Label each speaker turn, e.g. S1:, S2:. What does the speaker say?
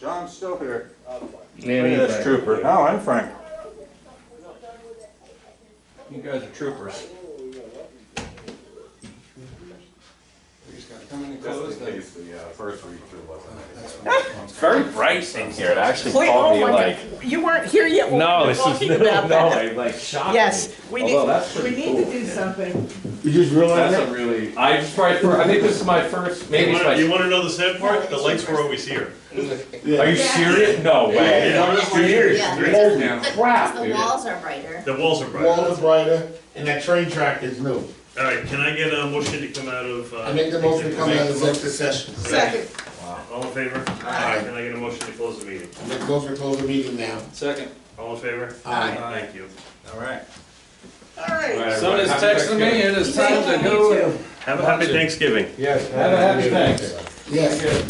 S1: John's still here. Look at this
S2: Anyway,
S1: trooper. No, I'm Frank.
S2: you guys are troopers.
S3: He's got to come in and close
S4: Just in
S3: the.
S4: case the uh, first read through wasn't.
S5: It's very bright in here. It actually
S6: Wait,
S5: caught
S6: oh
S5: me
S6: my
S5: like.
S6: God. You weren't here yet when we
S2: No,
S6: were
S2: this is
S6: talking
S2: no,
S6: about
S2: no,
S6: that.
S2: like, like shocking.
S6: Yes, we
S2: Although
S6: need,
S2: that's
S6: we
S2: pretty
S6: need
S2: cool.
S6: to do something.
S1: You just realized
S2: That's a really. I just probably. For, I think this is my first. Maybe it's my.
S7: You want to know the sad part? The lights were always here.
S2: Are you serious? No way.
S7: Yeah.
S2: Holy crap,
S8: The
S2: dude.
S8: walls are brighter.
S7: The walls are bright.
S9: Wall
S7: All
S9: is brighter, and that train track is new.
S7: right, can I get a motion to come out of? uh,
S9: I make the motion to come out of executive
S7: executive
S9: session.
S6: Second,
S7: session? All in favor?
S9: Aye.
S7: Can I get a motion to close the meeting?
S9: I make the motion to close the meeting now.
S3: Second.
S7: All in favor?
S9: Aye.
S7: Thank you.
S3: All right.
S6: all right.
S3: Somebody's texting me, it is time to
S6: Thank you.
S3: go.
S7: Have a happy Thanksgiving.
S2: Yes.
S3: Have a happy Thanksgiving.
S9: Yes.